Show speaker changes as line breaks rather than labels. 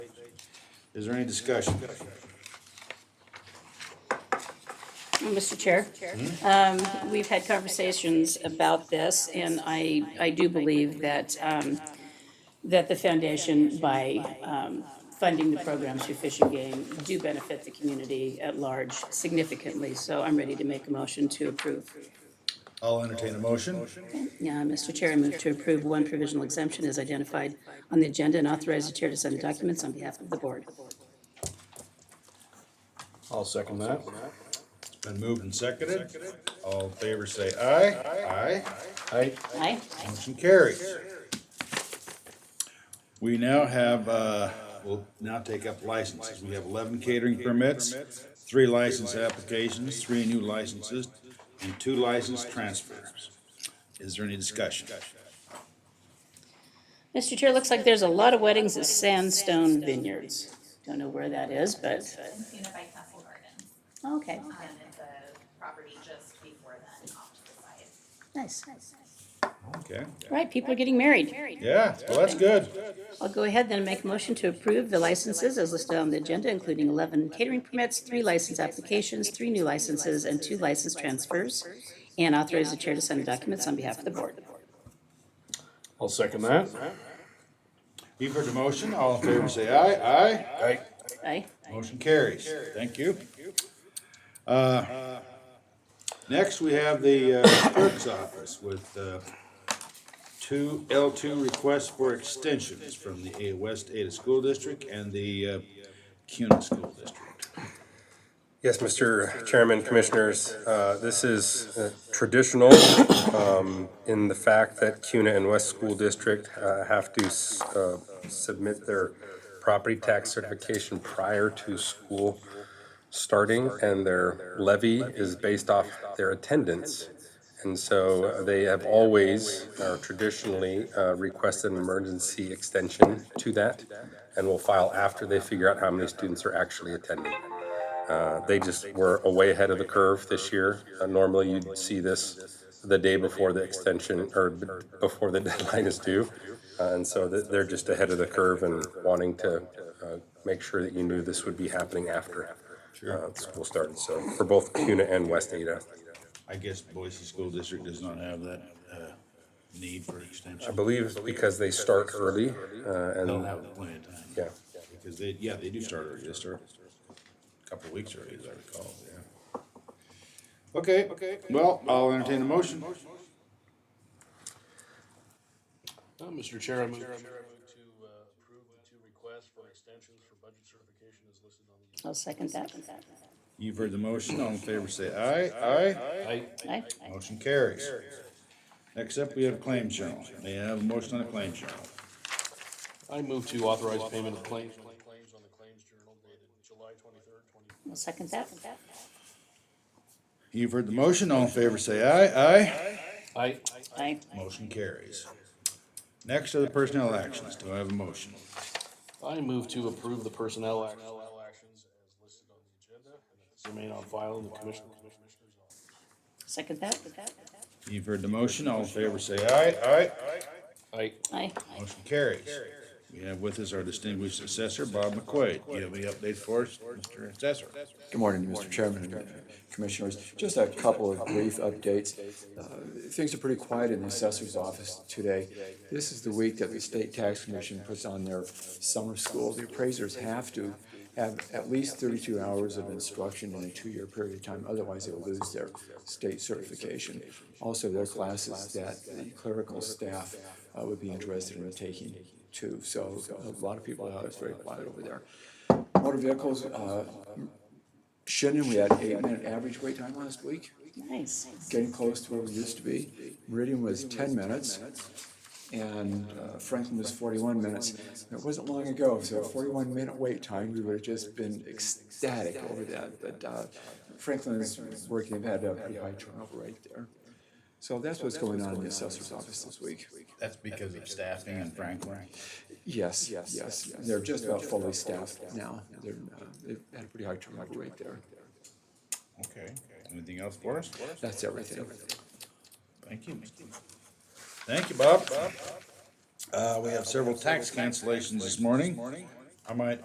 Is there any discussion?
Mr. Chair, um, we've had conversations about this, and I, I do believe that, um, that the foundation, by um, funding the program through Fish and Game, do benefit the community at large significantly. So I'm ready to make a motion to approve.
I'll entertain a motion.
Yeah, Mr. Chair, I move to approve one provisional exemption as identified on the agenda and authorize the chair to sign the documents on behalf of the board.
I'll second that.
It's been moved and seconded. All in favor say aye. Aye.
Aye.
Aye?
Motion carries. We now have, uh, we'll now take up licenses. We have eleven catering permits, three license applications, three new licenses, and two license transfers. Is there any discussion?
Mr. Chair, looks like there's a lot of weddings at Sandstone Vineyards. Don't know where that is, but,
Unified Castle Gardens,
okay,
and it's a property just before then off to the side.
nice.
Okay,
Right, people are getting married.
yeah, well, that's good.
I'll go ahead then and make a motion to approve the licenses as listed on the agenda, including 11 catering permits, three license applications, three new licenses, and two license transfers, and authorize the chair to sign the documents on behalf of the board.
I'll second that.
You've heard the motion. All in favor say aye. Aye.
Aye.
Aye?
Motion carries. Thank you. Uh, Next, we have the uh, clerk's office with uh, two L2 requests for extensions from the A- West Ada School District and the uh, CUNA School District.
Yes, Mr. Chairman, Commissioners, uh, this is uh, traditional um, in the fact that CUNA and West School District uh, have to s- uh, submit their property tax certification prior to school starting, and their levy is based off their attendance. And so uh, they have always, uh, traditionally, uh, requested an emergency extension to that, and will file after they figure out how many students are actually attending. Uh, They just were way ahead of the curve this year. Uh, Normally, you'd see this the day before the extension, or b- before the deadline is due. Uh, And so th- they're just ahead of the curve and wanting to uh, make sure that you knew this would be happening after uh, school started. So for both CUNA and West Ada.
I guess Boise School District does not have that uh, need for
I
extension.
believe because they start early uh, and,
They'll have it plenty of time.
yeah.
Because they, yeah, they do start early, they start a couple of weeks early, as I recall, yeah. Okay, well, I'll entertain a motion.
Uh, Mr. Chair, I move to uh, approve the two requests for extensions for budget certification as listed on the.
I'll second that.
You've heard the motion, all in favor say aye, aye.
Aye.
Aye?
Motion carries. Next up, we have claim journal. May I have a motion on the claim journal?
I move to authorize payment of claims. Claims on the claims journal dated July twenty-third, twenty.
I'll second that.
You've heard the motion, all in favor say aye,
Aye.
Aye?
aye. Motion carries. Next are the personnel actions. Do I have a motion?
I move to approve the personnel act- personnel actions as listed on the agenda and that this remain on file in the commission. commissioner's office.
Second that?
You've heard the motion, all in favor say aye, aye.
Aye.
Aye?
Motion carries. We have with us our distinguished assessor, Bob McQuaid. Do you have any update for us, Mr. Assessor?
Good morning, Mr. Chairman and Commissioners. Just a couple of brief updates. Uh, Things are pretty quiet in the assessor's office today. This is the week that the State Tax Commission puts on their summer school. The appraisers have to have at least thirty-two hours of instruction in a two-year period of time, otherwise they'll lose their state certification. Also, there are classes that the clerical staff uh, would be interested in taking too. So a lot of people out, it's very quiet over there. Motor vehicles, uh, Shannon, we had eight minute average wait time last week,
Nice.
getting close to where we used to be. Meridian was ten minutes and uh, Franklin was forty-one minutes. It wasn't long ago, so forty-one minute wait time, we would have just been ecstatic over that. But uh, Franklin is working, they've had a pretty high turnover rate there. So that's what's going on in the assessor's office this week.
That's because of staffing and Franklin.
Yes, yes, they're just about fully staffed now. They're, uh, they've had a pretty high turnover rate there.
Okay. Anything else for us?
That's everything.
Thank you. Thank you, Bob. Uh, we have several tax cancellations this morning. I might